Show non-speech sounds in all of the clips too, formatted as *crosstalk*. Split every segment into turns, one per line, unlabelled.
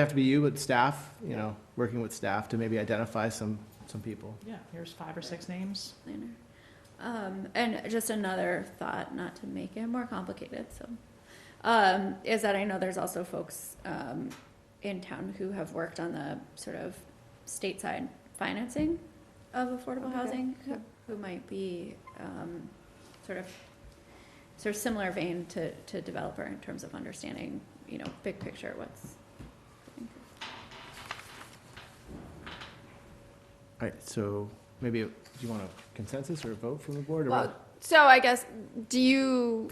have to be you, but staff, you know, working with staff to maybe identify some, some people.
Yeah, here's five or six names.
planner. Um, and just another thought, not to make it more complicated, so, um, is that I know there's also folks, um, in town who have worked on the sort of stateside financing of affordable
Okay.
housing, who,
Yeah.
who might be, um, sort of, sort of similar vein to, to developer in terms of understanding, you know, big picture, what's.
All right, so maybe, do you want a consensus or a vote from the board?
Uh,
or
Well,
what?
so I guess, do you,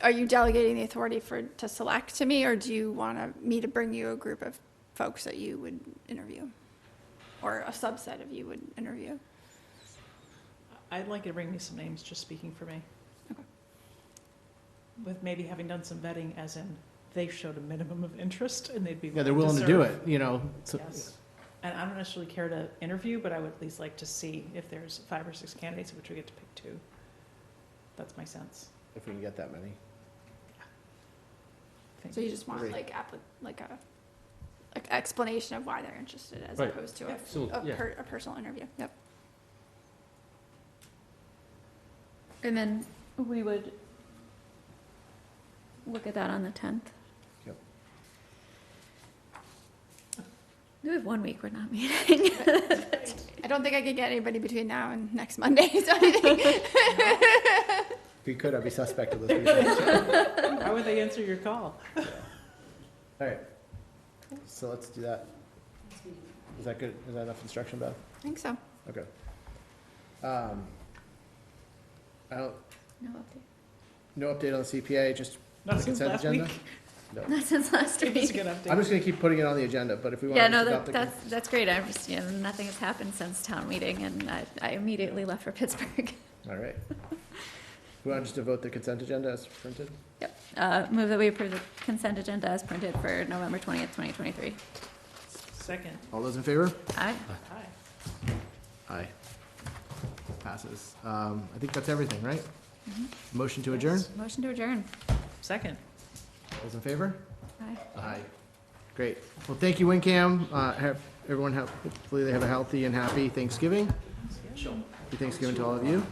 are you delegating the authority for, to select to me, or do you want to me to bring you a group of folks that you would interview? Or a subset of you would interview?
I'd like you to bring me some names, just speaking for me.
Okay.
With maybe having done some vetting, as in they showed a minimum of interest and they'd be.
Yeah, they're willing to do
serve.
it, you know, so-
Yes. And I don't necessarily care to interview, but I would at least like to see if there's five or six candidates, of which we get to pick two. That's my sense.
if we can get that many.
I think.
So you just want
Great.
like, appli- like a, like explanation of why they're interested as
Right.
opposed to a,
So,
a
yeah.
per, a personal interview, yep.
And then we would look at that on the tenth.
Yep.
We have one week we're not meeting.
I don't think I could get anybody between now and next Monday, *laughs* so I
*laughs*
think-
If you could, I'd be suspect of
*laughs*
those people.
Why would they answer your call?
All right, so let's do that. Is that good? Is that enough instruction, Beth?
I think so.
Okay. Um, I don't,
*laughs* No update.
no update on the CPA, just,
Not
Like
since
consent
last
agenda?
week. *laughs*
Not since last
Give us a
week.
*laughs*
good update.
I'm just gonna keep putting it on the agenda, but if we want to.
Yeah, no, that, that's, that's great. I'm just, you know, nothing has happened since town meeting and I, I immediately left for *laughs* Pittsburgh.
All right. We want just to vote the consent agenda as printed?
Yep. Uh, move that we approve the consent agenda as printed for November twentieth, twenty twenty-three.
Second,
All those in favor?
Aye.
aye.
Aye. Passes. Um, I think that's everything, right?
Mhm.
Motion to adjourn?
Yes.
Motion to adjourn.
Second.
All those in favor?
Aye.
Aye. Great. Well, thank you, WinCam. Uh, have, everyone have, hopefully they have a healthy and happy Thanksgiving. Happy Thanksgiving to all of you.